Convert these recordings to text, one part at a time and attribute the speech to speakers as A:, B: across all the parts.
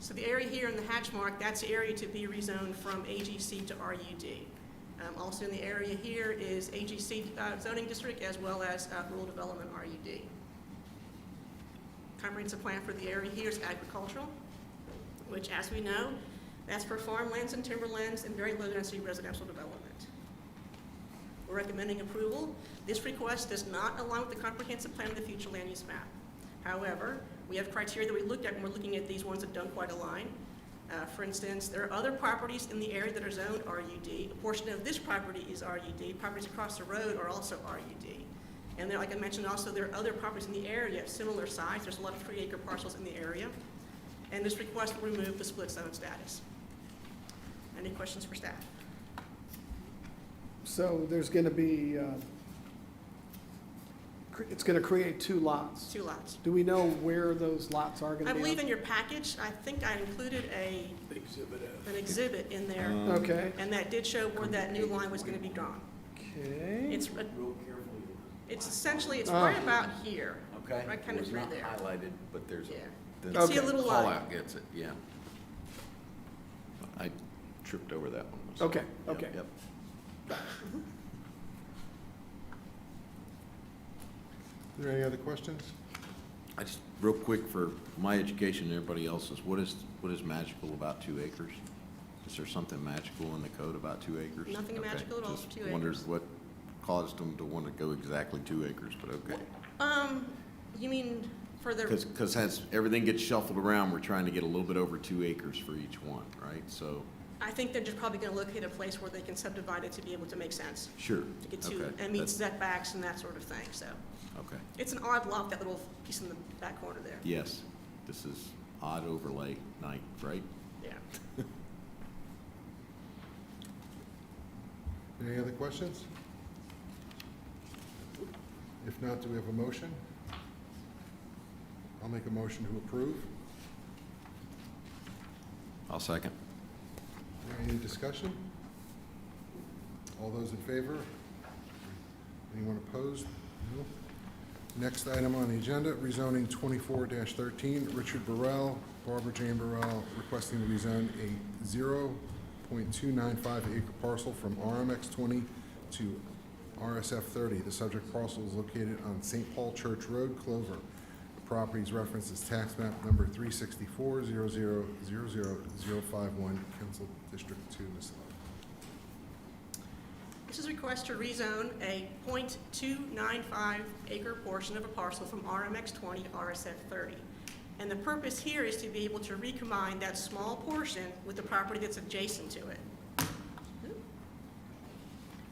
A: So the area here in the hatch mark, that's the area to be rezoned from AGC to RUD. Um, Also in the area here is AGC uh, zoning district as well as uh, rural development RUD. Comprehensive plan for the area here is agricultural, which as we know, that's for farmlands and timberlands and very low-density residential development. We're recommending approval. This request does not align with the comprehensive plan of the future land use map. However, we have criteria that we looked at when we're looking at these ones that don't quite align. Uh, For instance, there are other properties in the area that are zoned RUD. A portion of this property is RUD. Properties across the road are also RUD. And then, like I mentioned, also, there are other properties in the area of similar size. There's a lot of three-acre parcels in the area. And this request will remove the split zone status. Any questions for staff?
B: So there's going to be, uh, cre- it's going to create two
A: It's
B: lots.
A: two lots.
B: Do we know where those lots are going
A: I
B: to be?
A: believe in your package, I think I included a,
C: Exhibit
B: uh,
C: F.
A: an exhibit in there,
D: Um,
B: Okay,
A: and that did show where that new line was gonna be drawn.
B: okay.
A: It's, uh,
C: Real carefully.
A: it's essentially, it's
B: Ah.
A: right about here.
D: Uh-huh. Okay.
A: Right kind of
D: was
A: through
D: not
A: there.
D: Highlighted, but there's.
A: Yeah.
D: the
A: You see a
B: Okay.
A: little uh,
D: Call
A: line.
D: out gets it, yeah. I tripped over that one. myself.
B: Okay,
D: Yep,
B: okay.
D: Yep.
E: Are there any other questions?
D: I just, real quick for my education and everybody else's, what is, what is magical about two acres? Is there something magical in the code about two acres?
A: Nothing
D: Okay,
A: magical at all
D: just
A: for two
D: Wonders
A: acres.
D: what caused them to want to go exactly two acres, but okay.
A: Um, you mean for the,
D: Because, because as everything gets shuffled around, we're trying to get a little bit over two acres for each one, right? So,
A: I think they're just probably gonna locate a place where they can subdivide it to be able to make sense,
D: sure.
A: to get to,
D: okay,
A: and meet
D: that's-
A: setbacks and that sort of thing, so.
D: Okay,
A: It's an odd lot, that little piece in the back corner there,
D: yes, this is odd overlay night, right?
A: yeah.
E: Any other questions? If not, do we have a motion? I'll make a motion to approve.
D: I'll second.
E: Any discussion? All those in favor? Anyone opposed? No. Next item on the agenda, rezoning twenty-four thirteen, Richard Burrell, Barbara Jane Burrell, requesting to rezone a zero point two nine five acre parcel from RMX twenty to RSF thirty. The subject parcel is located on St. Paul Church Road, Clover. The Property is referenced as tax map number three sixty-four zero zero zero zero zero five one, Council District Two, Ms. Love.
A: This is a request to rezone a .295 acre portion of a parcel from RMX 20 to RSF 30. And the purpose here is to be able to recombine that small portion with the property that's adjacent to it.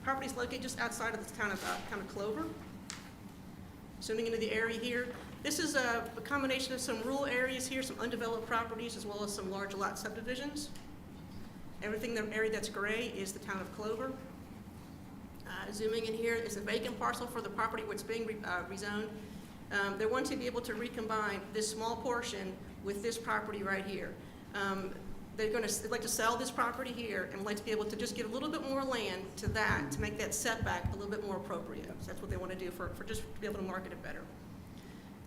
A: Property is located just outside of the town of, uh, town of Clover. Zooming into the area here, this is a a combination of some rural areas here, some undeveloped properties, as well as some large lot subdivisions. Everything, in the area that's gray is the town of Clover. Uh, Zooming in here is a vacant parcel for the property which is being re- uh, rezoned. Um, They want to be able to recombine this small portion with this property right here. Um, They're going to, like to sell this property here and like to be able to just give a little bit more land to that to make that setback a little bit more appropriate. So that's what they want to do for, for just to be able to market it better.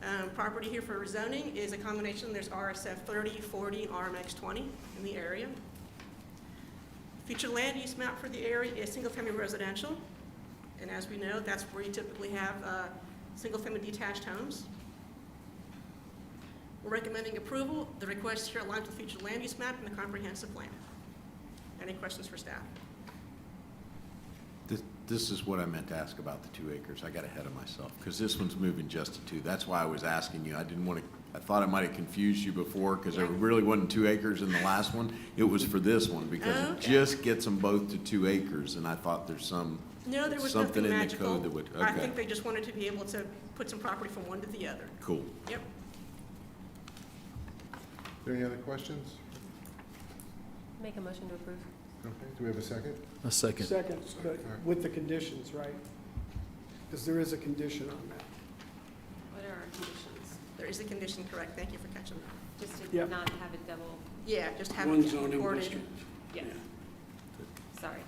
A: Um, Property here for rezoning is a combination, there's RSF 30, 40, RMX 20 in the area. Future land use map for the area is single-family residential, and as we know, that's where you typically have uh, single-family detached homes. We're recommending approval. The request here aligns with the future land use map and the comprehensive plan. Any questions for staff?
D: This, this is what I meant to ask about the two acres. I got ahead of myself, because this one's moving just to two. That's why I was asking you. I didn't want to, I thought I might have confused you before, because there
A: Yeah.
D: really wasn't two acres in the last one. It was for this one, because it
A: Okay.
D: just gets them both to two acres, and I thought there's some,
A: No, there was
D: Something
A: nothing
D: in the
A: magical.
D: code that would-
A: I
D: okay.
A: think they just wanted to be able to put some property from one to the other.
D: cool.
A: Yep.
E: Are there any other questions?
F: Make a motion to approve.
E: Okay, do we have a second?
C: A second.
B: Second, but with the conditions, right? Because there is a condition on that.
F: What are our conditions?
A: There is a condition, correct? Thank you for catching that.
F: Just to
B: Yep.
F: not have it double,
A: Yeah, just have
C: One
A: it
C: zoning
A: recorded.
C: district.
F: yes, sorry.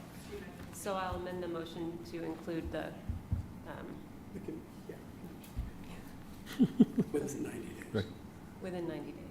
F: So I'll amend the motion to include the, um,
B: The con- yeah.
C: Within ninety days.
F: within 90 days.